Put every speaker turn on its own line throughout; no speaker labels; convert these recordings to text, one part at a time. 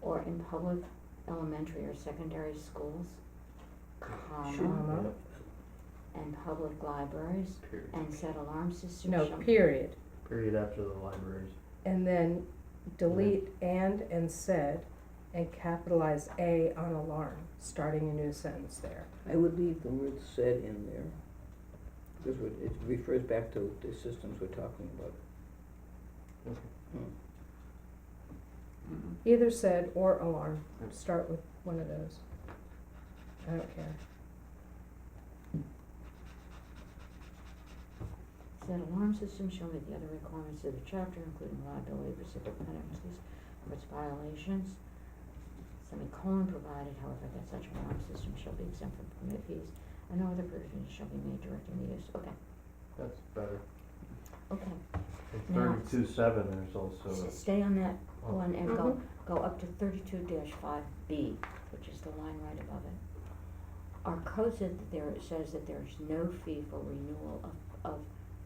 or in public elementary or secondary schools, comma,
Sure.
and public libraries,
Period.
and set alarm systems
No,
shall
period.
Period after the libraries.
And then delete and and said and capitalize A on alarm, starting a new sentence there.
I would leave the word said in there, because it it refers back to the systems we're talking about.
Okay.
Hmm. Mhm.
Mm-hmm.
Either said or alarm, start with one of those. I don't care.
Said alarm system shall meet the other requirements of the chapter, including liability for civil penalties for its violations. Semicolon provided, however, that such alarm system shall be exempt from permit fees, and no other provisions shall be made directing the use, okay,
That's better.
okay.
In
Now-
thirty-two seven, there's also,
S- Stay on that
Oh.
one and go,
Mhm.
go up to thirty-two five B, which is the line right above it. Our code said that there, says that there is no fee for renewal of, of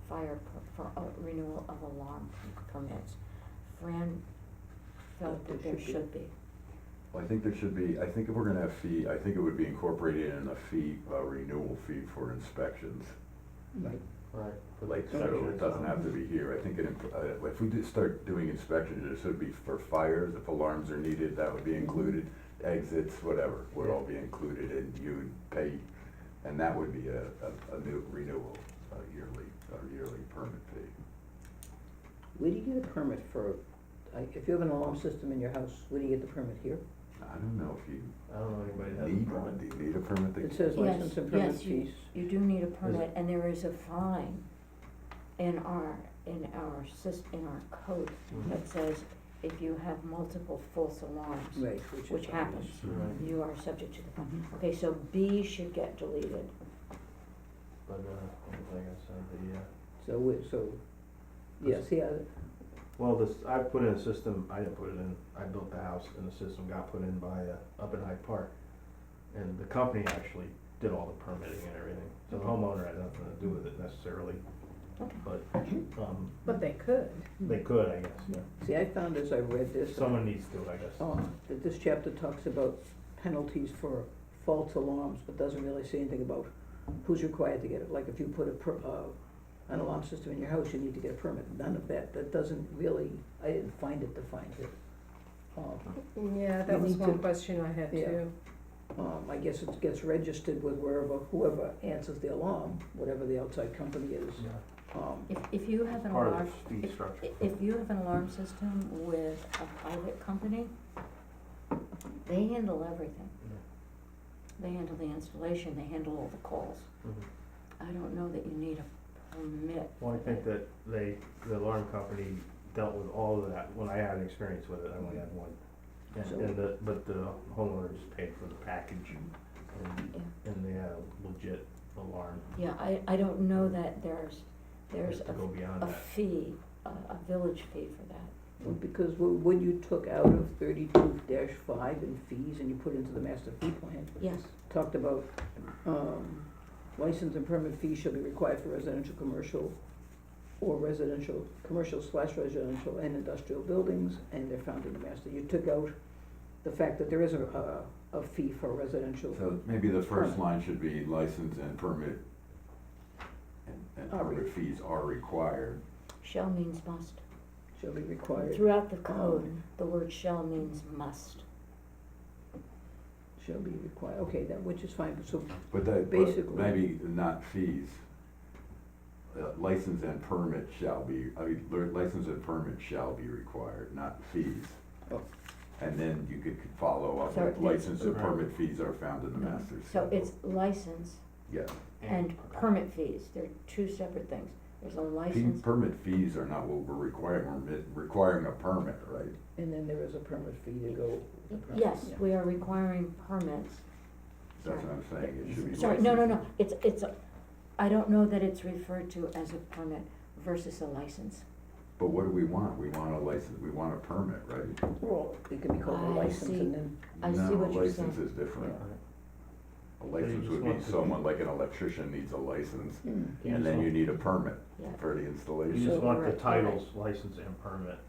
fire, per- for uh, renewal of alarm permits. Fran felt that
That
there
there
should
should
be,
Well, I think there should be, I think if we're gonna have fee, I think it would be incorporated in a fee, a renewal fee for inspections.
Right.
right. for
Like,
the
so
section
it doesn't have to
itself.
be here, I think it, imp- uh, if we did start doing inspections, it should be for fires, if alarms are needed, that would be included. Exits, whatever, would all be included and you'd pay, and that would be a, a, a new renewal, a yearly, a yearly permit fee.
Where do you get a permit for, I- if you have an alarm system in your house, where do you get the permit here?
I don't know if you
I don't know anybody that has a
need one,
permit.
do you need a permit? to-
It says
Yes,
license and permit
yes, you-
fees.
you do need a permit, and there is a fine in our, in our sys, in our code
Mhm.
that says if you have multiple false alarms,
Right, which is.
Which happens.
Right,
you are subject to the fine. Okay, so B should get deleted.
but, uh, like I said, the, uh,
So, we- so, yeah, see, I,
well, this, I put in a system, I didn't put it in, I built the house and the system got put in by, uh, up in Hyde Park. And the company actually did all the permitting and everything, so the homeowner had nothing to do with it necessarily,
Okay.
but, um,
But they could.
they could, I guess, yeah.
see, I found as I read this.
Someone needs to, I
Oh.
guess.
um, that this chapter talks about penalties for false alarms, but doesn't really say anything about who's required to get it. Like if you put a per, uh, an alarm system in your house, you need to get a permit, none of that, that doesn't really, I didn't find it defined here. Um,
Yeah,
You
that was
need
one
to-
question I had
Yeah.
too.
um, I guess it gets registered with wherever, whoever answers the alarm, whatever the outside company is.
Yeah.
Um,
If, if you have an
Part
alarm,
of the fee structure.
i- if you have an alarm system with a private company, they handle everything.
Yeah.
They handle the installation, they handle all the calls.
Mhm.
I don't know that you need a permit.
Well, I think that they, the alarm company dealt with all of that, when I had experience with it, I only had one.
So-
And, and the, but the homeowner just paid for the package and,
Yeah.
and they had a legit alarm,
Yeah, I, I don't know that there's, there's
just to go
a,
beyond
a
that.
fee, a, a village fee for that.
because wh- when you took out of thirty-two five in fees and you put into the master fee plan,
Yes,
talked about, um, license and permit fees shall be required for residential, commercial, or residential, commercial slash residential and industrial buildings, and they're found in the master. You took out the fact that there is a, a, a fee for residential,
So maybe the first
Permit.
line should be license and permit, and, and
Are re-
permit fees are required.
shall means must.
shall be required, Um,
Throughout
Oh.
the code, the word shall means must.
shall be required, okay, that, which is fine, so,
But that, but
Basically.
maybe not fees. Uh, License and permit shall be, I mean, lear- license and permit shall be required, not fees.
Oh.
And then you could follow up
So
with
it's-
license and
Right.
permit fees are found in the master's.
So it's license
Yeah,
and permit fees, they're two separate things. There's a
Fee-
license,
permit fees are not what we're requiring, we're mi- requiring a permit, right?
and then there is a permit fee to go. with the permit,
yes,
yeah.
we are requiring permits.
That's what I'm saying, it should be.
Sorry, no, no,
license-
no, it's, it's, a- I don't know that it's referred to as a permit versus a license.
But what do we want? We want a license, we want a permit, right?
Well, it can be called
Ah, I
a license
see.
and then,
I see what you're
No, a license
saying.
is different. A
you
license
just
would
want
be
to-
someone, like an electrician needs a license,
hmm,
You
and
just
then you
want-
need a permit
Yeah.
for the
You
installation.
just want the
Right, right.
titles, license and permit,